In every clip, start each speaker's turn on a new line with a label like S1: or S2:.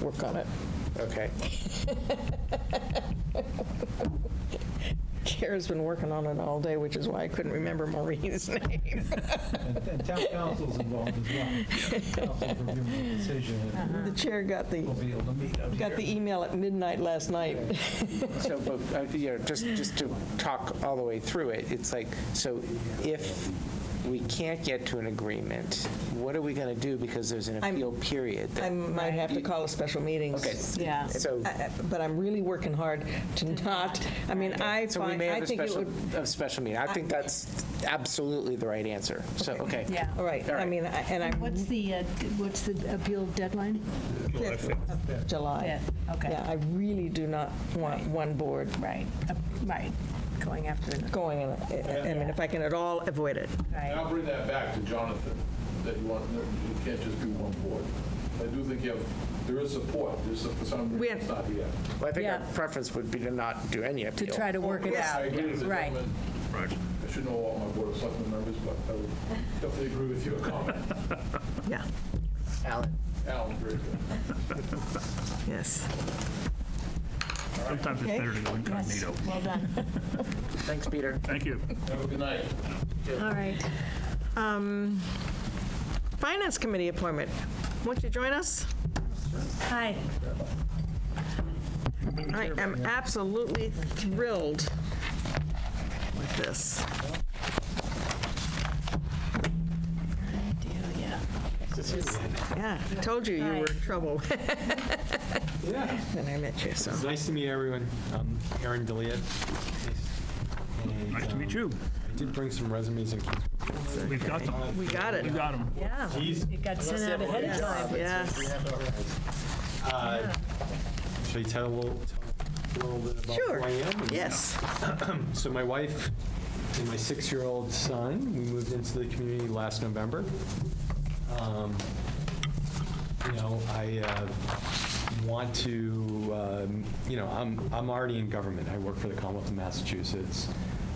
S1: work on it.
S2: Okay.
S1: Kara's been working on it all day, which is why I couldn't remember Maureen's name.
S3: And and town council's involved as well. Council's reviewing the decision, and
S1: The chair got the,
S3: we'll be able to meet up
S1: Uh-huh. got
S3: here.
S1: the email at midnight last night.
S2: So, but, uh, you know, just, just to talk all the way through it, it's like, so if we can't get to an agreement, what are we going to do? Because there's an
S1: I'm-
S2: appeal period. that-
S1: I might have to call a special meeting.
S2: Okay.
S4: Yeah.
S2: So,
S1: I- I- But I'm really working hard to not, I mean, I
S2: so we
S1: find,
S2: may
S1: I
S2: have a
S1: think it
S2: special,
S1: would,
S2: a special meeting. I think that's absolutely the right answer. So, okay.
S4: Yeah.
S1: all right,
S2: All
S1: I
S2: right.
S1: mean, I- and I'm,
S5: What's the, uh, what's the appeal deadline?
S1: July.
S4: Fifth, okay.
S1: Yeah, I really do not want one board
S4: Right, uh, right, going after the,
S1: going, in a- I mean, if I can at all avoid it.
S6: And I'll
S4: right,
S6: bring that back to Jonathan, that you want, that it can't just be one board. I do think you have, there is support, there's, some- for some
S1: We had-
S6: reason, it's not here.
S2: Well, I think our
S4: Yeah.
S2: preference would be to not do any
S4: to
S2: appeal.
S4: try to work it
S6: I
S4: out.
S6: agree with the
S4: Right.
S6: gentleman. I should know all my board of selectmen members, but I would definitely agree with your comment,
S1: Yeah,
S2: Alan,
S6: Alan, very good.
S1: yes.
S7: Sometimes it's
S1: Okay.
S7: better to go incognito.
S4: Well done.
S2: thanks, Peter.
S7: Thank you.
S6: Have a good night.
S5: All right.
S1: Um, Finance Committee appointment. Won't you join us?
S4: Hi.
S1: I am absolutely thrilled with this. Yeah, I told you you were in trouble
S8: Yeah,
S1: when I met you, so.
S8: it's nice to meet everyone. Um, I'm Aaron Deliet.
S7: Nice to meet you.
S8: um, I did bring some resumes and
S7: We've got them.
S1: We got it.
S7: We've got them.
S1: Oh,
S4: Yeah,
S8: keys.
S4: it got sent out ahead of time.
S1: Yes,
S8: Uh, Should I tell a little, tell a little bit about
S1: Sure.
S8: who I am? and
S1: yes.
S8: So my wife and my six-year-old son, we moved into the community last November. Um, You know, I uh, want to, um, you know, I'm, I'm already in government. I work for the Commonwealth of Massachusetts.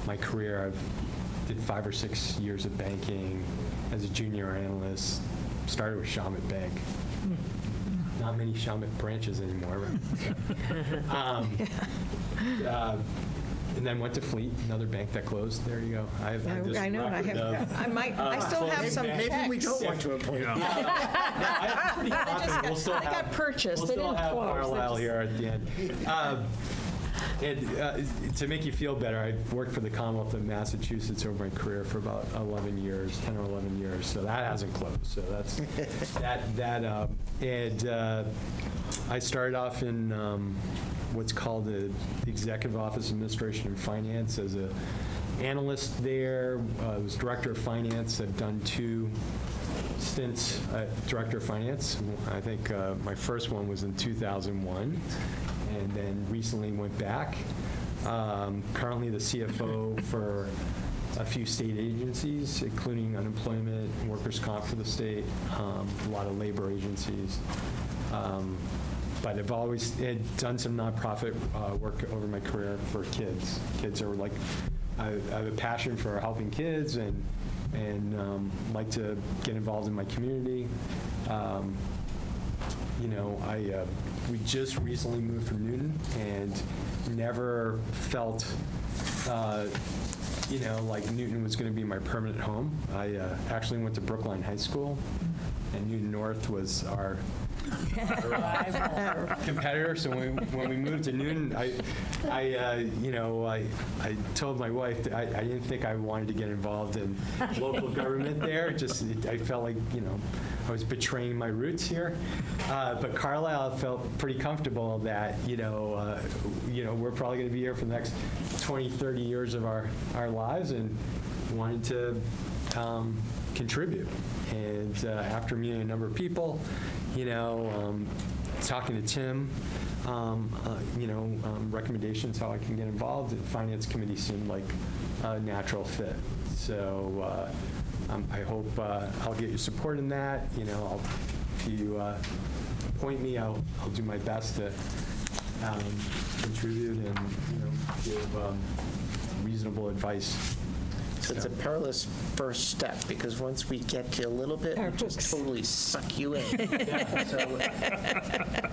S8: My career, I've did five or six years of banking as a junior analyst, started with Shamit Bank. Not many Shamit branches anymore. but- Um, uh, And then went to Fleet, another bank that closed. There you go. I have this
S1: I know, I
S8: record
S1: have,
S8: of-
S1: I might, I still have some checks.
S2: Uh, Maybe we don't want to appoint.
S8: I'm pretty confident we'll still
S1: They
S8: have.
S1: got purchased, they
S8: We'll
S1: didn't
S8: still have
S1: close. They're
S8: Carlisle
S1: just-
S8: here at the end. Um, And uh, to make you feel better, I worked for the Commonwealth of Massachusetts over my career for about 11 years, 10 or 11 years, so that hasn't closed, so that's, that, that, um, and uh, I started off in um, what's called the Executive Office of Administration and Finance as a analyst there, Uh, I was Director of Finance, I've done two stints at Director of Finance. I think uh, my first one was in 2001, and then recently went back. Um, Currently the CFO for a few state agencies, including unemployment, workers' comp for the state, um, a lot of labor agencies. Um, But I've always had done some nonprofit uh, work over my career for kids. Kids are like, I I have a passion for helping kids and and um, like to get involved in my community. Um, you know, I uh, we just recently moved from Newton and never felt, uh, you know, like Newton was going to be my permanent home. I uh, actually went to Brookline High School, and Newton North was our competitor. So when, when we moved to Newton, I, I, uh, you know, I, I told my wife that I, I didn't think I wanted to get involved in local government there. Just it, I felt like you know I was betraying my roots here. Uh, but Carlisle felt pretty comfortable that you know, uh, you know, we're probably going to be here for the next 20, 30 years of our our lives, and wanted to um, contribute. And uh, after meeting a number of people, you know, um, talking to Tim, um, uh, you know, um, recommendations how I can get involved, the Finance Committee seemed like a natural fit. So uh, um, I hope uh, I'll get your support in that. You know, I'll, if you uh, appoint me, I'll, I'll do my best to um, contribute and, you know, give um, reasonable advice.
S2: So it's a perilous first step, because once we get you a little bit, we just totally suck you in. So